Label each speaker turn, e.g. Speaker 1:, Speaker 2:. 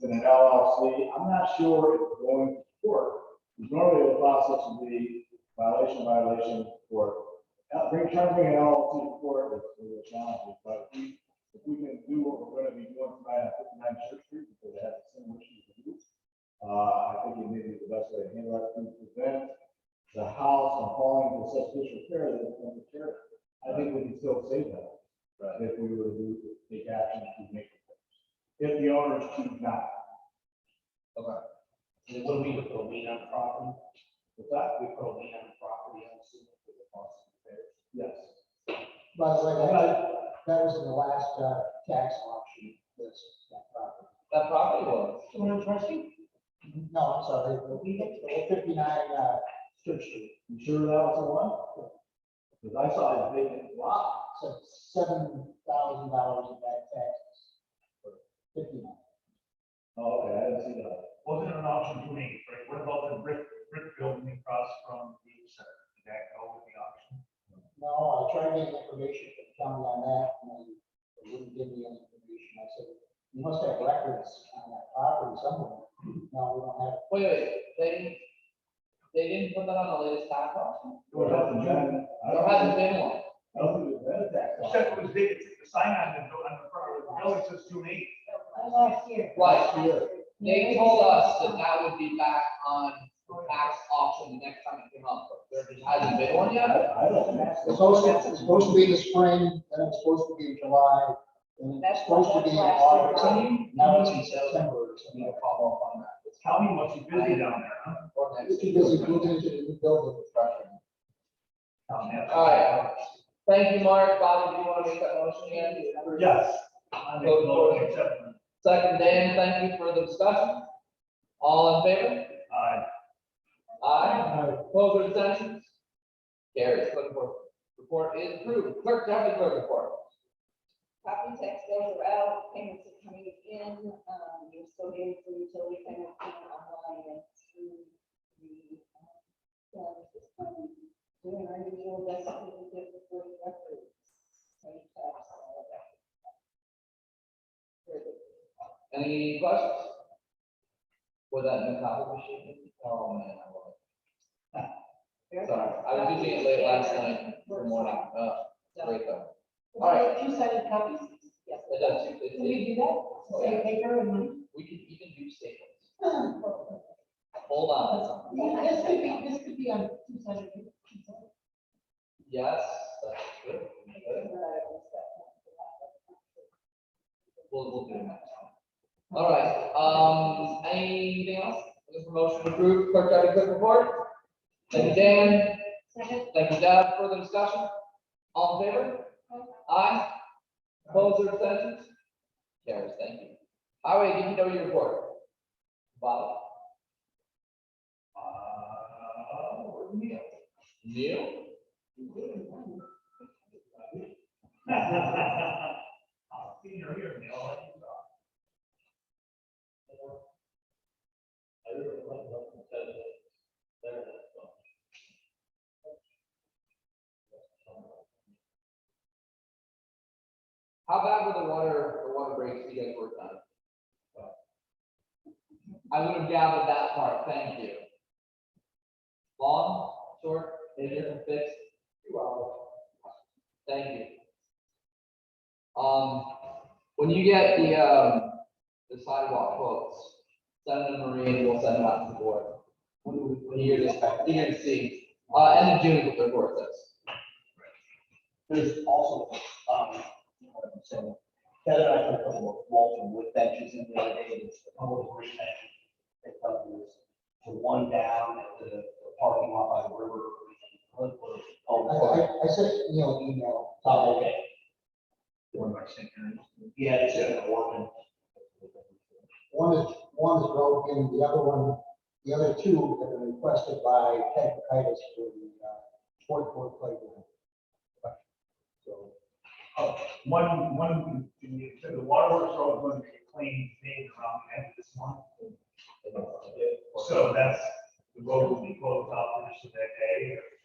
Speaker 1: than an LLC. I'm not sure if we're going to court, because normally the process would be violation, violation, court. Now, bring, trying to bring an LLC to court is a real challenge, but if we- if we can do what we're gonna be doing tonight at fifty-nine Church Street, because they have the same issues we do, uh, I think it may be the best way to handle that, to prevent the house from falling into such disrepair that it's going to tear. I think we can still save that, if we were to take action to make it. If the owners choose not,
Speaker 2: And what do we, put a lien on the property?
Speaker 1: with that,
Speaker 2: We put a lien on the property, I'm assuming, for the cost of repairs.
Speaker 1: yes.
Speaker 3: By the way, that,
Speaker 1: But
Speaker 3: that was in the last, uh, tax auction, this, that property.
Speaker 2: That property was. Two hundred twenty?
Speaker 3: No, I'm sorry, the the fifty-nine, uh, Church Street,
Speaker 1: You sure that was the one? Because I saw it vacant lot,
Speaker 3: so seven thousand dollars in back taxes. Fifty-nine.
Speaker 1: oh, okay, I didn't see that.
Speaker 4: wasn't an option to me, right? What about the brick, brick building across from the center? Did that go with the auction?
Speaker 3: No, I tried getting information from the county on that, and they wouldn't give me any information. I said, you must have records on that property somewhere. No, we don't have,
Speaker 2: Wait, wait, they, didn't- they didn't put that on the latest tax auction?
Speaker 1: It hasn't been- I
Speaker 2: There
Speaker 1: don't
Speaker 2: hasn't
Speaker 1: think,
Speaker 2: been one.
Speaker 1: I don't think it's been a tax
Speaker 4: It
Speaker 1: lot.
Speaker 4: said it was big, it's the sign on the, buil- on the front of the building says two eight.
Speaker 5: Last year.
Speaker 2: Last
Speaker 1: year.
Speaker 2: They told us that that would be back on the tax auction the next time it came up. There just hasn't been one yet?
Speaker 1: I I don't. that's the-
Speaker 3: it's supposed, to- it's supposed to be in the spring, then it's supposed to be in July, then it's
Speaker 5: That's-
Speaker 3: supposed to be in
Speaker 5: that's last
Speaker 3: August.
Speaker 5: year.
Speaker 3: Now it's in September or something.
Speaker 2: No follow up on that.
Speaker 4: The county must be busy down there, huh?
Speaker 2: Or next
Speaker 3: It's
Speaker 2: week.
Speaker 3: because it moved into the new building construction.
Speaker 4: Down there.
Speaker 2: All right. Thank you, Mark. Bobby, do you want to make that motion again?
Speaker 4: Yes. I make a motion, accept.
Speaker 2: Second, Dan, thank you for the discussion. All in favor?
Speaker 4: Aye.
Speaker 2: Aye. Opposed or abstentions? Carries. Report, report is approved. Clerk, deputy clerk report.
Speaker 5: Property tax bills are out, payments are coming in, um, you're still getting for utility payments coming online and through the, um, so this time, doing our usual best that we can do for the records. Pay tax, all of that. Very good.
Speaker 2: Any questions? Was that new copy machine? Oh, man, I love it. Sorry, I was using it late last night for morning. Uh, great though.
Speaker 5: All right. Two sided copies? Yes.
Speaker 2: It does, it-
Speaker 5: Can we
Speaker 2: it-
Speaker 5: do that? Save paper and money? Oh,
Speaker 2: we could even do staples.
Speaker 5: Yeah,
Speaker 2: Hold on.
Speaker 5: This could be, this could be on two sided.
Speaker 2: Yes, that's good. good. We'll, we'll do it next time. All right, um, anything else? Looking for motion to approve clerk deputy clerk report? Thank you, Dan.
Speaker 5: Second.
Speaker 2: Thank you, Deb. Further discussion? All in favor? Aye. Opposed or abstentions? Carries, thank you. Highway DPW report. Bobby.
Speaker 4: Uh, where do we
Speaker 2: Neil?
Speaker 4: go? I'll see you here, Neil. I'll let you go.
Speaker 2: How bad were the water, the water breaks you guys worked on? I would have gathered that part, thank you. Long, short, any different fix? Two hours. Thank you. Um, when you get the, um, the sidewalk quotes, send them to Marie and we'll send them out to the board. When, when you hear this, back, you're gonna see, uh, end of June is what the report says.
Speaker 6: There's also, um, so Heather and I took a couple of Walton wood benches in the other day, there's a couple of wood benches. They thought there was the one down at the the parking lot by the river.
Speaker 3: I,
Speaker 6: Oh,
Speaker 3: I, I sent Neil an email.
Speaker 6: oh, okay.
Speaker 4: One by St. Mary's.
Speaker 6: Yeah, it's in Orland.
Speaker 3: One is, one is road in, the other one, the other two have been requested by Ted Titus for the, uh, sport court playground. So,
Speaker 4: Oh, One, one, so the waterworks are going to be cleaned maybe around the end of this month. So that's, the road will be closed off for just that day. uh,